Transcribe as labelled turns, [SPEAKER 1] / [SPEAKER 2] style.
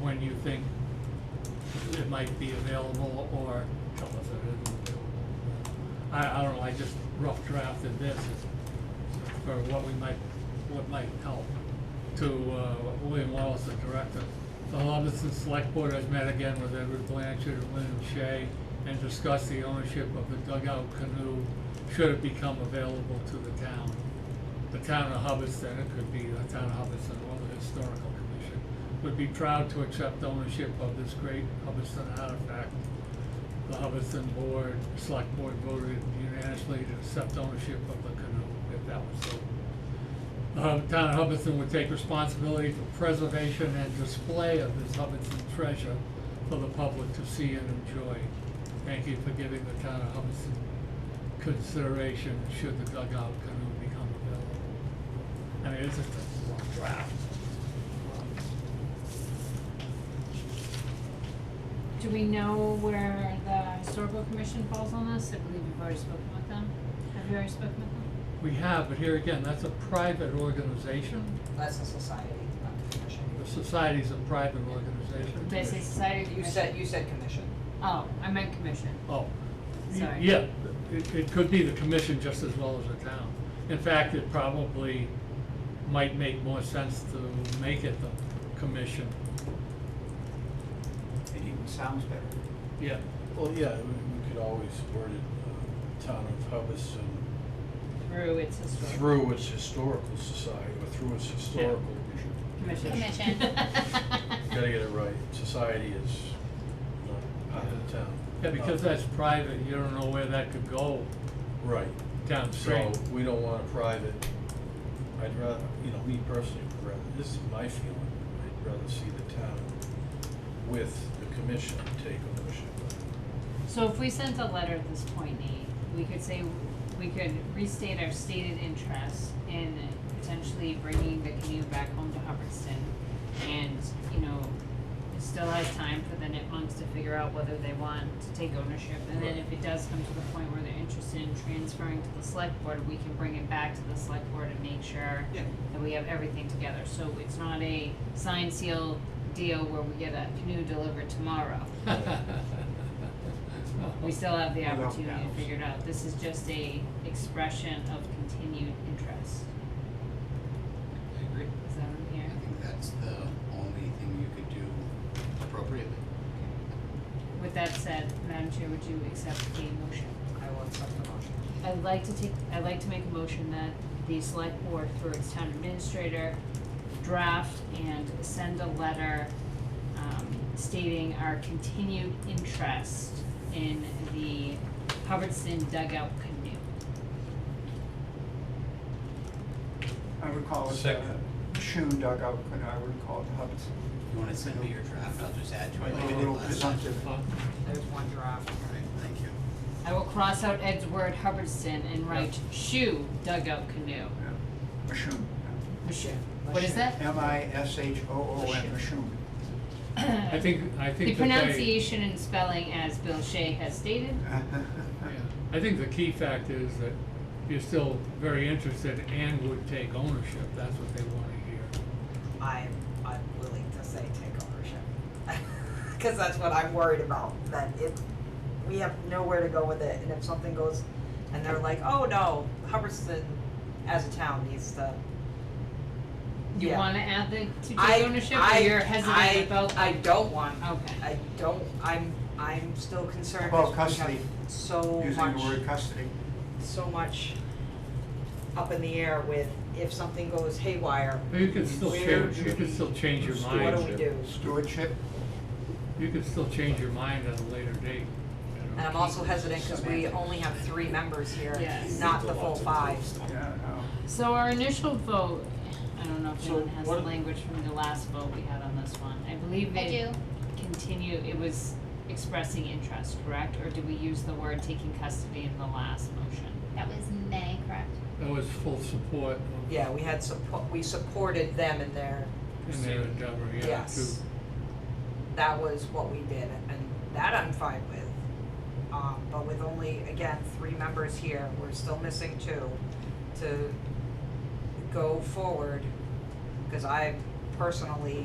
[SPEAKER 1] when you think it might be available or tell us it isn't available. I, I don't know, I just rough drafted this for what we might, what might help to, uh, William Wallace, the director. The Hubbardson Select Board has met again with Edward Blanchard and William Shea and discussed the ownership of the dugout canoe should it become available to the town. The town of Hubbardston, it could be the town of Hubbardston or the historical commission, would be proud to accept ownership of this great Hubbardston artifact. The Hubbardston Board, Select Board voted unanimously to accept ownership of the canoe, if that was so uh, the town of Hubbardston would take responsibility for preservation and display of this Hubbardston treasure for the public to see and enjoy. Thank you for giving the town of Hubbardston consideration should the dugout canoe become available. I mean, it's just a long draft.
[SPEAKER 2] Do we know where the historical commission falls on this? I believe you've already spoken with them. Have you already spoken with them?
[SPEAKER 1] We have, but here again, that's a private organization.
[SPEAKER 3] That's a society, not a commission.
[SPEAKER 1] The society's a private organization.
[SPEAKER 2] Did I say society or
[SPEAKER 3] You
[SPEAKER 2] commission?
[SPEAKER 3] said, you said commission.
[SPEAKER 2] Oh, I meant commission.
[SPEAKER 1] Oh, y-
[SPEAKER 2] Sorry.
[SPEAKER 1] yeah, it, it could be the commission just as well as the town. In fact, it probably might make more sense to make it the commission,
[SPEAKER 4] It even sounds better.
[SPEAKER 1] yeah.
[SPEAKER 5] Well, yeah, we, we could always word it, uh, town of Hubbardston
[SPEAKER 2] Through its historical.
[SPEAKER 5] through its historical society, or through its historical.
[SPEAKER 2] Commission.
[SPEAKER 6] Commission.
[SPEAKER 5] Gotta get it right, society is not part of the town. Uh,
[SPEAKER 1] Yeah, because that's private, you don't know where that could go
[SPEAKER 5] Right, so
[SPEAKER 1] downstream.
[SPEAKER 5] we don't want a private, I'd rather, you know, me personally, would rather, this is my feeling, I'd rather see the town with the commission take ownership.
[SPEAKER 2] So if we sent a letter at this point, Nate, we could say, we could restate our stated interest in potentially bringing the canoe back home to Hubbardston. And, you know, it still has time for the Nipmunks to figure out whether they want to take ownership. And then if it does come to the point where they're interested in transferring to the select board, we can bring it back to the select board and make sure
[SPEAKER 4] Yeah.
[SPEAKER 2] that we have everything together, so it's not a sign seal deal where we get a canoe delivered tomorrow. We still have the
[SPEAKER 4] Without
[SPEAKER 2] opportunity to
[SPEAKER 4] bounds.
[SPEAKER 2] figure it out, this is just a expression of continued interest,
[SPEAKER 7] I agree.
[SPEAKER 2] is that what I'm
[SPEAKER 7] I
[SPEAKER 2] hearing?
[SPEAKER 7] think that's the only thing you could do appropriately.
[SPEAKER 2] With that said, Madam Chair, would you accept the motion?
[SPEAKER 3] I will accept the motion.
[SPEAKER 2] I'd like to take, I'd like to make a motion that the select board through its town administrator draft and send a letter um stating our continued interest in the Hubbardston dugout canoe.
[SPEAKER 4] I would call it uh,
[SPEAKER 5] Second.
[SPEAKER 4] a Shun dugout, and I would call it Hubbardston.
[SPEAKER 7] You wanna send me your draft, I'll just add to it like I
[SPEAKER 4] A
[SPEAKER 7] did
[SPEAKER 4] little
[SPEAKER 7] last time.
[SPEAKER 4] presumptive.
[SPEAKER 1] Huh?
[SPEAKER 3] There's one draft.
[SPEAKER 7] Alright, thank you.
[SPEAKER 2] I will cross out Ed's word Hubbardston and write shoe dugout canoe.
[SPEAKER 4] Yeah. A Shun.
[SPEAKER 2] Shoe. What is that?
[SPEAKER 4] M I S H O O N, a Shun.
[SPEAKER 1] I think, I
[SPEAKER 2] The
[SPEAKER 1] think that they,
[SPEAKER 2] pronunciation and spelling as Bill Shea has stated.
[SPEAKER 1] yeah, I think the key fact is that you're still very interested and would take ownership, that's what they wanna hear.
[SPEAKER 3] I, I'm willing to say take ownership. Cause that's what I'm worried about, that if, we have nowhere to go with it, and if something goes, and they're like, oh no, Hubbardston as a town needs to.
[SPEAKER 2] You
[SPEAKER 3] Yeah.
[SPEAKER 2] wanna add the to
[SPEAKER 3] I-
[SPEAKER 2] take ownership
[SPEAKER 3] I-
[SPEAKER 2] or you're
[SPEAKER 3] I-
[SPEAKER 2] hesitant about?
[SPEAKER 3] I don't want,
[SPEAKER 2] Okay.
[SPEAKER 3] I don't, I'm, I'm still concerned.
[SPEAKER 4] About
[SPEAKER 3] because we have
[SPEAKER 4] custody.
[SPEAKER 3] So much.
[SPEAKER 4] Using the word custody.
[SPEAKER 3] so much up in the air with if something goes haywire,
[SPEAKER 1] But you could still
[SPEAKER 3] Where
[SPEAKER 1] change,
[SPEAKER 3] do
[SPEAKER 1] you could
[SPEAKER 3] we-
[SPEAKER 1] still change your mind.
[SPEAKER 3] what do we do?
[SPEAKER 4] Stewardship,
[SPEAKER 1] You could still change your mind at a later date. you know.
[SPEAKER 3] And I'm also hesitant because we only have three members here,
[SPEAKER 2] Yes.
[SPEAKER 3] not the full five.
[SPEAKER 4] yeah, no.
[SPEAKER 2] So our initial vote, I don't know if
[SPEAKER 5] So
[SPEAKER 2] anyone has the
[SPEAKER 5] what-
[SPEAKER 2] language from the last vote we had on this one. I believe
[SPEAKER 6] I
[SPEAKER 2] it
[SPEAKER 6] do.
[SPEAKER 2] continue, it was expressing interest, correct? Or did we use the word taking custody in the last motion?
[SPEAKER 6] That was May, correct?
[SPEAKER 1] That was full support of-
[SPEAKER 3] Yeah, we had support, we supported them in their,
[SPEAKER 1] in their endeavor, yeah,
[SPEAKER 3] yes.
[SPEAKER 1] to,
[SPEAKER 3] That was what we did, and that I'm fine with. Um, but with only, again, three members here, we're still missing two to go forward. Cause I personally